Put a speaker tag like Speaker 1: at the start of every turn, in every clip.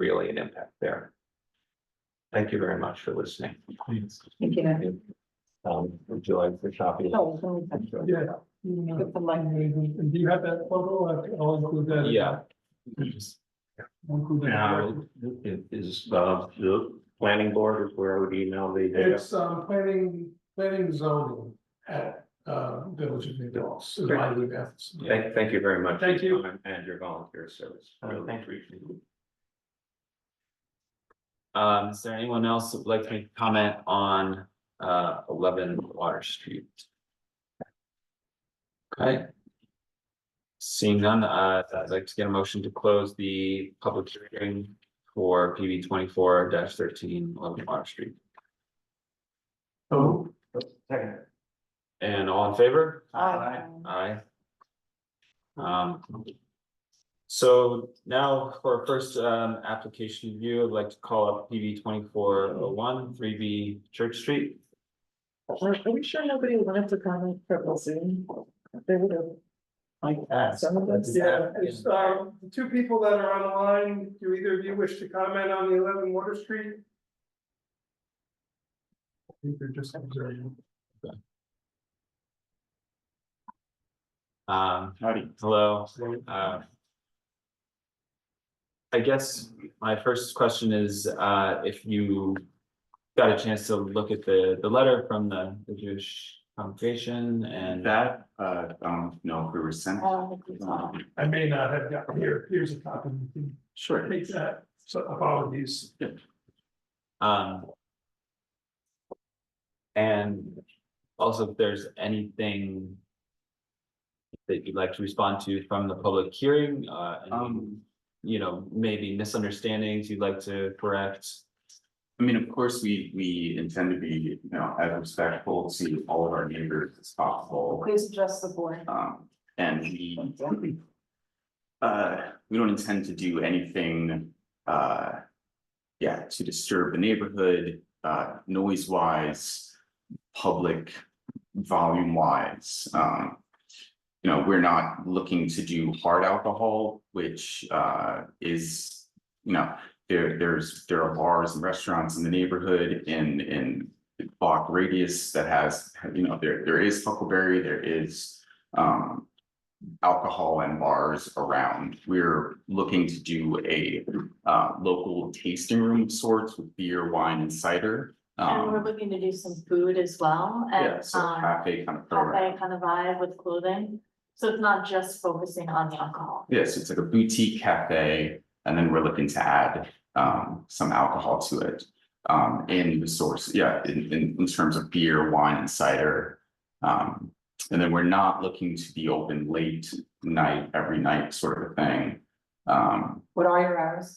Speaker 1: an impact there. Thank you very much for listening.
Speaker 2: Thank you.
Speaker 1: Um, would you like the copy?
Speaker 2: Oh, so we can
Speaker 3: Yeah.
Speaker 2: put the line.
Speaker 3: And do you have that photo? I- I'll include that.
Speaker 1: Yeah.
Speaker 3: I'll include that.
Speaker 1: Now, it is, uh, the planning board is where I would email the data.
Speaker 3: It's um planning, planning zoning at uh Village of New Dallas, is my new office.
Speaker 1: Thank, thank you very much. for
Speaker 3: Thank
Speaker 1: your
Speaker 3: you.
Speaker 1: time And your volunteer service.
Speaker 4: Uh,
Speaker 1: Really
Speaker 4: thank you.
Speaker 1: appreciate it.
Speaker 4: Um, is there anyone else who would like to make a comment on uh eleven Water Street? Okay. Seeing none, uh, I'd like to get a motion to close the public hearing for PB twenty-four 13 thirteen eleven Water Street.
Speaker 3: Oh,
Speaker 4: And all in favor?
Speaker 2: Aye.
Speaker 4: Aye. Um. So now for our first um application review, I'd like to call up PB twenty-four oh one, three B Church Street.
Speaker 5: Are are we sure nobody wanted to comment from Zoom? They would have. Like that. Some of them.
Speaker 3: yeah, it's uh the two people that are on the line, do either of you wish to comment on the eleven Water Street? I think they're just observing.
Speaker 4: Um, hello, uh. I guess my first question is, uh, if you got a chance to look at the, the letter from the the Jewish congregation and.
Speaker 6: That, uh, I don't know if we were sent.
Speaker 5: Oh.
Speaker 2: Um,
Speaker 6: um,
Speaker 3: I may not have gotten here, here's a copy, you can
Speaker 6: Sure.
Speaker 3: take that, so apologies.
Speaker 4: Um. And also if there's anything. That you'd like to respond to from the public hearing, uh, and,
Speaker 6: Um,
Speaker 4: you know, maybe misunderstandings you'd like to correct.
Speaker 6: I mean, of course, we, we intend to be, you know, as respectful to all of our neighbors as possible,
Speaker 2: Please address the board.
Speaker 6: um, and we. Uh, we don't intend to do anything, uh. Yeah, to disturb the neighborhood, uh, noise wise, public volume wise, um. You know, we're not looking to do hard alcohol, which, uh, is, you know, there, there's, there are bars and restaurants in the neighborhood in, in block radius that has, you know, there, there is Huckleberry, there is um alcohol and bars around. We're looking to do a uh local tasting room of sorts with beer, wine and cider.
Speaker 2: And we're
Speaker 6: Um,
Speaker 2: looking to do some food as well
Speaker 6: yeah,
Speaker 2: and
Speaker 6: so
Speaker 2: um
Speaker 6: cafe kind of program.
Speaker 2: cafe kind of vibe with clothing. So it's not just focusing on the alcohol.
Speaker 6: Yes, it's like a boutique cafe, and then we're looking to add um some alcohol to it. Um, in the source, yeah, in in in terms of beer, wine and cider. Um, and then we're not looking to be open late night, every night sort of a thing. Um,
Speaker 2: What are your hours?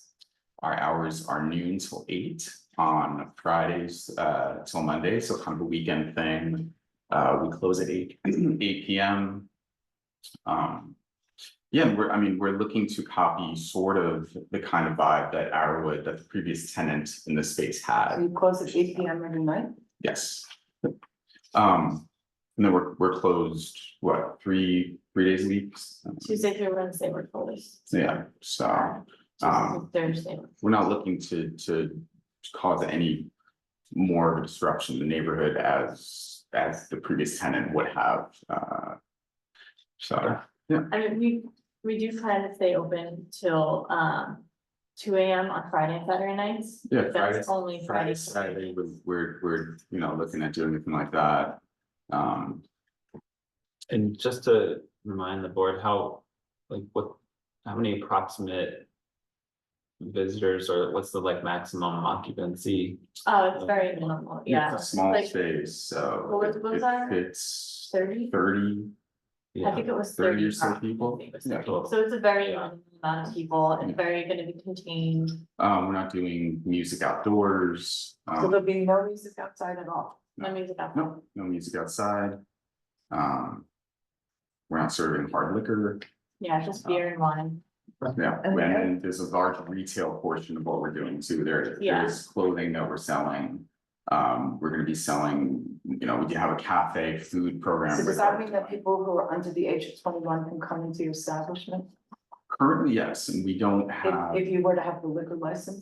Speaker 6: our hours are noon till eight on Fridays uh till Monday, so kind of a weekend thing. Uh, we close at eight, eight P M. Um, yeah, and we're, I mean, we're looking to copy sort of the kind of vibe that Arrowood, that the previous tenant in the space had,
Speaker 5: You close at eight P M every night?
Speaker 6: yes. Um, and then we're, we're closed, what, three, three days a week?
Speaker 2: Tuesday through Wednesday we're closed.
Speaker 6: Yeah, so.
Speaker 2: Tuesday through
Speaker 6: Um,
Speaker 2: Thursday.
Speaker 6: we're not looking to, to cause any more of a disruption in the neighborhood as, as the previous tenant would have, uh. So,
Speaker 2: I mean, we, we do plan to stay open till um two AM on Friday and Saturday nights.
Speaker 6: Yeah,
Speaker 2: But
Speaker 6: Friday-
Speaker 2: That's only Friday.
Speaker 6: Friday, Saturday, we're, we're, we're, you know, looking at doing anything like that. Um,
Speaker 4: And just to remind the board how, like, what, how many approximate. Visitors or what's the like maximum occupancy?
Speaker 2: Oh, it's very minimal, yeah.
Speaker 6: It's a small
Speaker 2: Like
Speaker 6: space, so.
Speaker 2: What was- what was that?
Speaker 6: It's
Speaker 2: Thirty,
Speaker 6: thirty,
Speaker 2: I
Speaker 4: Yeah.
Speaker 2: think it was
Speaker 6: thirty
Speaker 2: thirty.
Speaker 6: or so
Speaker 2: approximately,
Speaker 6: people.
Speaker 2: it was
Speaker 6: Yeah.
Speaker 2: 30. So it's a very
Speaker 4: Yeah.
Speaker 2: limited amount of people
Speaker 6: Yeah.
Speaker 2: and very gonna be contained.
Speaker 6: Um, we're not doing music outdoors.
Speaker 5: So
Speaker 6: Um,
Speaker 5: there'll be no music outside at all.
Speaker 2: Let me get that. one.
Speaker 6: no, no music outside. Um, we're not serving hard liquor.
Speaker 2: Yeah, just beer and wine.
Speaker 6: Yeah,
Speaker 5: And
Speaker 6: and
Speaker 5: then-
Speaker 6: then there's a large retail portion of what we're doing too. There,
Speaker 2: Yeah.
Speaker 6: there's clothing that we're selling. Um, we're gonna be selling, you know, we do have a cafe food program.
Speaker 5: So
Speaker 6: with
Speaker 5: does that
Speaker 6: our-
Speaker 5: mean that people who are under the age of twenty-one can come into your establishment?
Speaker 6: Currently, yes, and we don't
Speaker 5: If,
Speaker 6: have.
Speaker 5: if you were to have the liquor license?